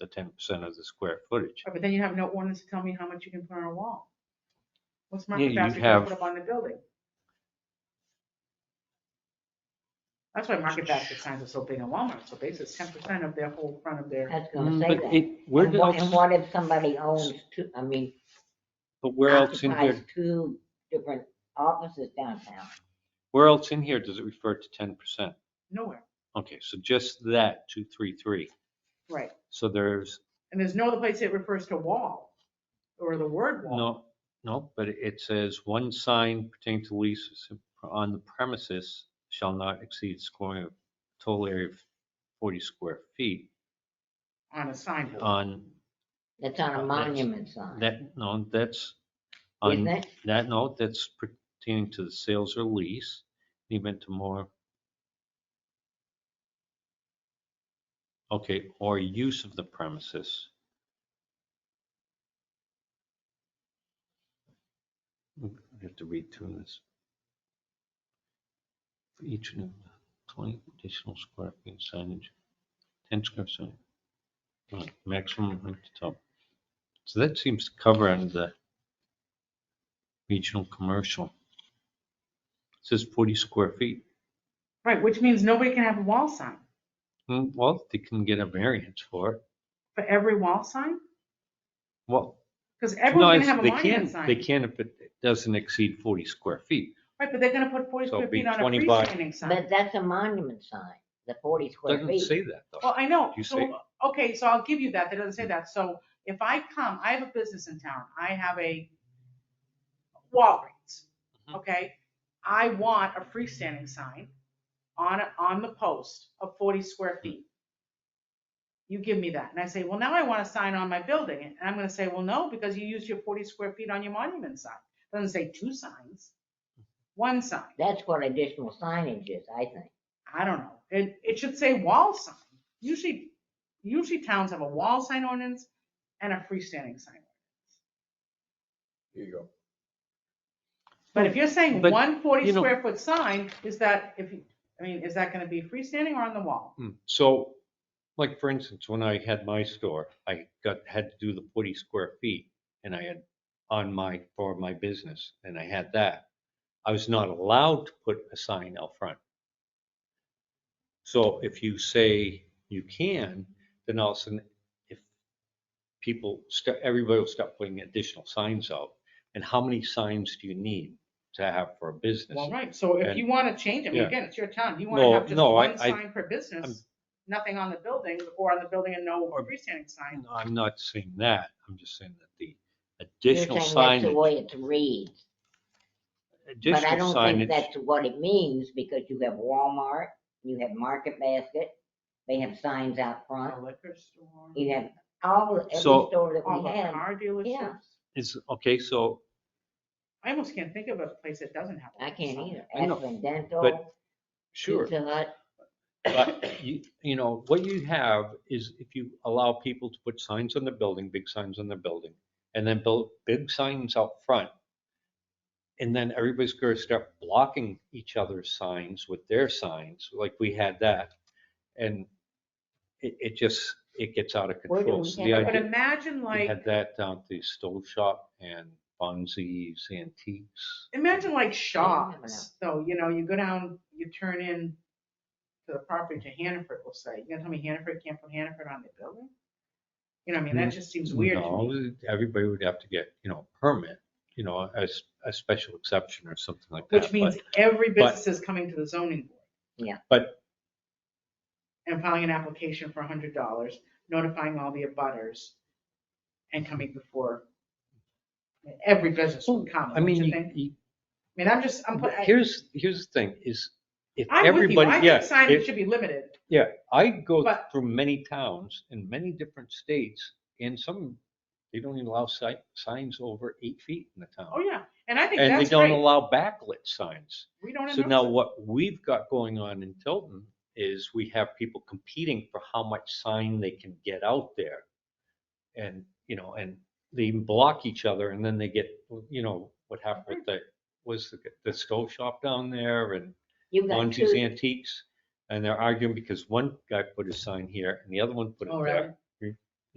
to ten percent of the square footage. Oh, But then you have no ordinance to tell me how much you can put on a wall. What's my Yeah, you'd capacity to have- put up on the building? That's why market basket signs are so big in Walmart, so basically ten percent of their whole front of their, I was gonna say Mm, But that. it, where And what- And else, what if somebody owns two, I mean, but where else in occupies here, two different offices downtown? where else in here does it refer to ten percent? nowhere, Okay, so just that, two, three, three. right? So there's, And there's no other place it refers to wall or the word wall. no, no, but it says one sign pertaining to leases on the premises shall not exceed square, total area of forty square feet On a signboard. on That's on Uh, a that's- monument sign, that, no, that's on isn't it? that note, that's pertaining to the sales or lease, even to more. Okay, or use of the premises. I have to read through this. For each new twenty additional square feet signage, ten square feet. uh, Maximum height to top. So that seems to cover under the regional commercial. It Says forty square feet. Right, which means nobody can have a wall sign. Hmm, Well, they can get a variance for it. For every wall sign? Well, Because no, everyone's it's- gonna have a they can, monument they sign. can if it doesn't exceed forty square feet. Right, but they're gonna put forty So square it'd be feet on a 20 by- freestanding sign. But that's a monument sign, the forty square Doesn't feet. say that though. Well, I know, You so, say- okay, so I'll give you that, that doesn't say that, so if I come, I have a business in town, I have a Walgreens, Mhm. okay? I want a freestanding sign on, on the post of forty square feet. You give me that, and I say, well, now I want a sign on my building, and I'm gonna say, well, no, because you used your forty square feet on your monument sign, doesn't say two signs, one sign, That's what additional signage is, I think. I don't know, it, it should say wall sign. Usually, usually towns have a wall sign ordinance and a freestanding sign. Here you go. But if you're saying But, one forty you know- square foot sign, is that, if, you- I mean, is that gonna be freestanding or on the wall? Hmm, So, like for instance, when I had my store, I got, had to do the forty square feet and I had on my, for my business, and I had that. I was not allowed to put a sign out front. So if you say you can, then all of a sudden, if people, sta- everybody will start putting additional signs out. And how many signs do you need to have for a business? Well, right, so if And- you wanna change it, I mean, Yeah. again, it's your town, you No, wanna have just no, I- one I- sign per business, nothing on the building, or on the building and no freestanding sign. No, I'm not saying that. I'm just saying that the You're additional saying That's the signage, way it reads, but I additional don't signage, think that's what it means, because you have Walmart, you have Market Basket, they have signs out A front, liquor store, you have all, every So- store that all we the have. car dealerships. is, okay, so, I almost can't think of a place that doesn't have. a I can't sign. either. I know, Aspen Dental, sure. Pizza Hut, But you, you know, what you have is if you allow people to put signs on the building, big signs on the building, and then build big signs out front. And then everybody's gonna start blocking each other's signs with their signs, like we had that. And it, it just, it gets out of Where do control. we So have the it? idea- But imagine We like. had that down at the stove shop and Bonzi's Antiques. Imagine like never Shaw's, though, you know, you go down, you turn in to the property to Hannaford, we'll say, you gonna tell me Hannaford can't put Hannaford on the building? You know, I mean, that just seems weird to me. Mm, No, everybody would have to get, you know, a permit, you know, as a special exception or something like that. Which means but- every but- business is coming to the zoning board. Yeah. But- And filing an application for a hundred dollars, notifying all the abutters and coming before. Every business would come, I do mean, you you- think? you- I mean, I'm just, I'm, put- I- here's, here's the thing is if I'm with you, I everybody, think yeah. signage if- should be limited. Yeah, I go But- through many towns in many different states and some, they don't even allow si- signs over eight feet in the Oh, town. yeah, and I think And they that's don't great. allow backlit signs. We don't So endorse now it. what we've got going on in Tilton is we have people competing for how much sign they can get out there. And, you know, and they even block each other and then they get, you know, what happened with the, was the, the stove shop down there and you've got Bonzi's two, Antiques. And they're arguing because one guy put a sign here and the other one put Oh, it really? there.